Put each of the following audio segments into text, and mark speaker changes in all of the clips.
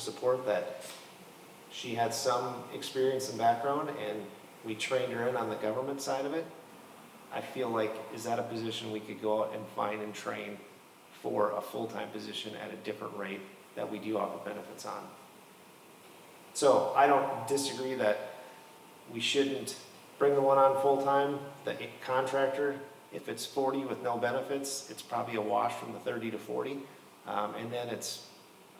Speaker 1: support that she had some experience and background, and we trained her in on the government side of it. I feel like, is that a position we could go out and find and train for a full-time position at a different rate that we do offer benefits on? So I don't disagree that we shouldn't bring the one on full-time, the contractor. If it's forty with no benefits, it's probably a wash from the thirty to forty. Um, and then it's,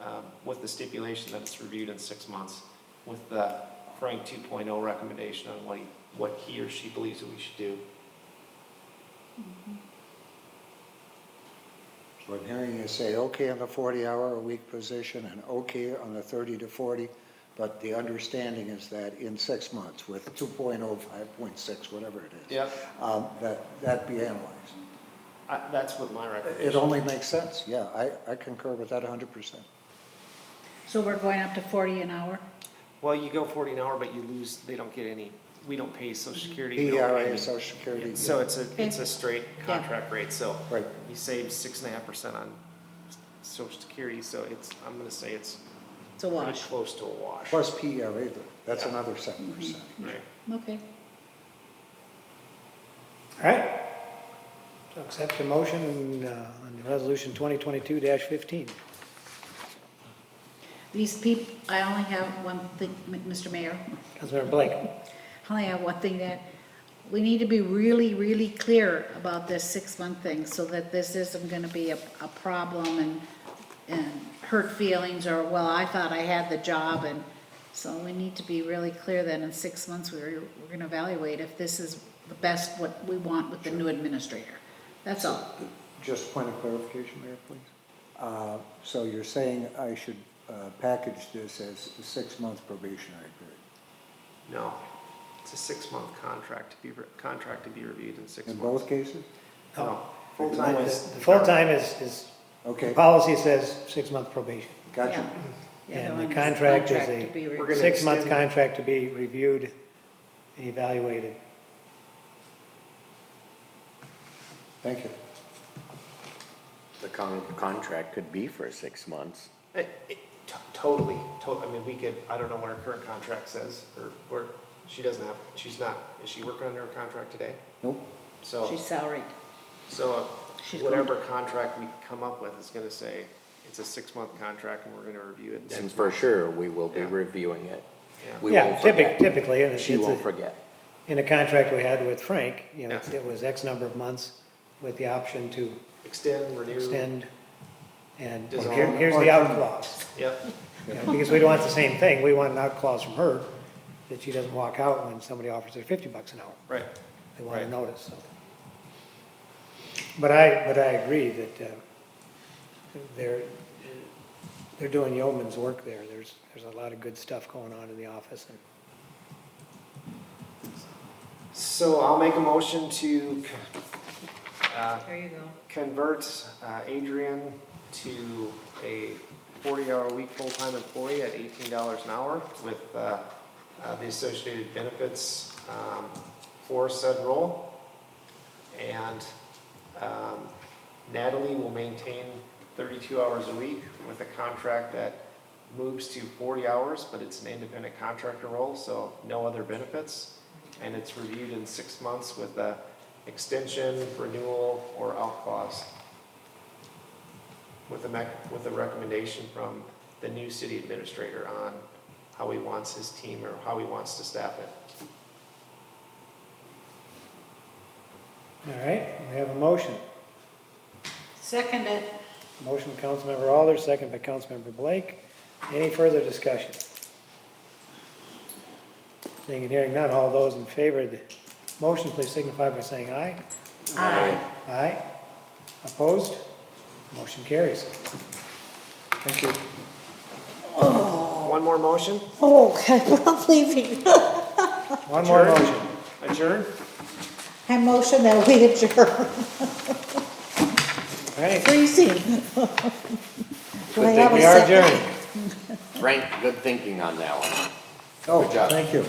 Speaker 1: um, with the stipulation that it's reviewed in six months with the Frank two oh recommendation on what he, what he or she believes that we should do.
Speaker 2: So I'm hearing you say, okay on the 40-hour-a-week position and okay on the 30 to 40, but the understanding is that in six months with 2.0, 5.6, whatever it is.
Speaker 1: Yep.
Speaker 2: um, That, that be analyzed.
Speaker 1: I, that's what my
Speaker 2: It
Speaker 1: recommendation.
Speaker 2: only makes sense, yeah, I, I concur with that 100%.
Speaker 3: So we're going up to forty an hour?
Speaker 1: Well, you go forty an hour, but you lose, they don't get any, we don't pay social security. we don't pay
Speaker 2: ERA,
Speaker 1: any-
Speaker 2: social security.
Speaker 1: So it's a, it's a straight contract rate, so
Speaker 2: Right,
Speaker 1: you save six and a half percent on s- social security, so it's, I'm gonna say it's
Speaker 3: It's a
Speaker 1: pretty
Speaker 3: wash.
Speaker 1: close to a wash.
Speaker 2: plus PERA, that's
Speaker 1: Yeah. Mm-hmm.
Speaker 2: another 7%.
Speaker 1: Right.
Speaker 3: Okay.
Speaker 4: All right. So Accept the motion uh, on Resolution 2022-15.
Speaker 3: These people, I only have one thing, M- Mr. Mayor,
Speaker 4: Councilmember Blake.
Speaker 3: I only have one thing that, we need to be really, really clear about this six-month thing so that this isn't gonna be a, a problem and, and hurt feelings or, well, I thought I had the job and so we need to be really clear that in six months, we're, we're gonna evaluate if this is the best what we want with the new administrator. That's all.
Speaker 2: Just point of clarification there, please. Uh, So you're saying I should uh, package this as a six-month probationary period?
Speaker 1: No, it's a six-month contract to be, re- contract to be reviewed in six
Speaker 2: In
Speaker 1: months.
Speaker 2: both cases?
Speaker 1: No, full-time
Speaker 4: The-
Speaker 1: is.
Speaker 4: the Full-time is, is, the
Speaker 2: Okay,
Speaker 4: policy says six-month probation.
Speaker 2: gotcha.
Speaker 3: Yeah,
Speaker 4: And
Speaker 3: one
Speaker 4: the
Speaker 3: is
Speaker 4: contract is
Speaker 3: contract
Speaker 4: a
Speaker 3: to be re-
Speaker 1: We're gonna
Speaker 4: Six-month
Speaker 1: extend-
Speaker 4: contract to be reviewed and evaluated.
Speaker 2: Thank you.
Speaker 5: The con- contract could be for six months.
Speaker 1: It- it- t- Totally, to, I mean, we could, I don't know what her current contract says, or, or, she doesn't have, she's not, is she working under a contract today?
Speaker 2: Nope.
Speaker 1: So,
Speaker 3: She's salaried.
Speaker 1: so uh,
Speaker 3: She's
Speaker 1: whatever contract we come up with is gonna say, it's a six-month contract and we're gonna review it. in
Speaker 5: And
Speaker 1: six
Speaker 5: for
Speaker 1: months.
Speaker 5: sure, we will be
Speaker 1: Yeah.
Speaker 5: reviewing it.
Speaker 1: Yeah.
Speaker 5: We
Speaker 4: Yeah,
Speaker 5: won't
Speaker 4: typic-
Speaker 5: forget.
Speaker 4: Typically, and it's,
Speaker 5: She won't
Speaker 4: it's a-
Speaker 5: forget.
Speaker 4: in the contract we had with Frank, you know,
Speaker 1: Yeah.
Speaker 4: it was X number of months with the option to
Speaker 1: Extend, renew,
Speaker 4: extend. And
Speaker 1: Dissolve.
Speaker 4: here- here's the out clause.
Speaker 1: yep,
Speaker 4: You know, Because we don't want the same thing, we want an out clause from her, that she doesn't walk out when somebody offers her fifty bucks an hour,
Speaker 1: right,
Speaker 4: they want
Speaker 1: Right.
Speaker 4: to notice, so. But I, but I agree that, uh, they're, they're doing yeoman's work there, there's, there's a lot of good stuff going on in the office, and
Speaker 1: so I'll make a motion to, uh,
Speaker 3: There you go.
Speaker 1: convert uh, Adrian to a 40-hour-a-week full-time employee at $18 an hour with uh, uh, the associated benefits um, for said role. And um, Natalie will maintain 32 hours a week with a contract that moves to 40 hours, but it's an independent contractor role, so no other benefits. And it's reviewed in six months with a extension, renewal, or out clause. With a mech, with a recommendation from the new city administrator on how he wants his team or how he wants to staff it.
Speaker 4: all right, we have a motion.
Speaker 3: Second it.
Speaker 4: Motion by Councilmember Alders, second by Councilmember Blake. Any further discussion? Seeing and hearing none, all those in favor of the motion, please signify by saying aye.
Speaker 3: Aye.
Speaker 4: Aye. Opposed? Motion carries.
Speaker 2: Thank you.
Speaker 1: One more motion,
Speaker 6: Oh, I'm not leaving.
Speaker 4: One more
Speaker 1: Adjourn.
Speaker 4: motion.
Speaker 1: adjourn?
Speaker 6: I motion that we adjourn.
Speaker 4: All right.
Speaker 6: Freezing. Do I
Speaker 5: Good thing
Speaker 6: have a
Speaker 4: We are
Speaker 6: second?
Speaker 4: adjourned.
Speaker 5: Frank, good thinking on that one.
Speaker 2: Oh,
Speaker 5: Good job.
Speaker 2: thank you.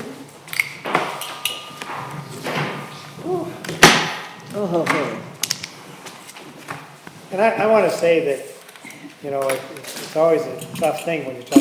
Speaker 6: Oh,
Speaker 4: And I, I want to say that, you know, it- it's it's always a tough thing when you're talking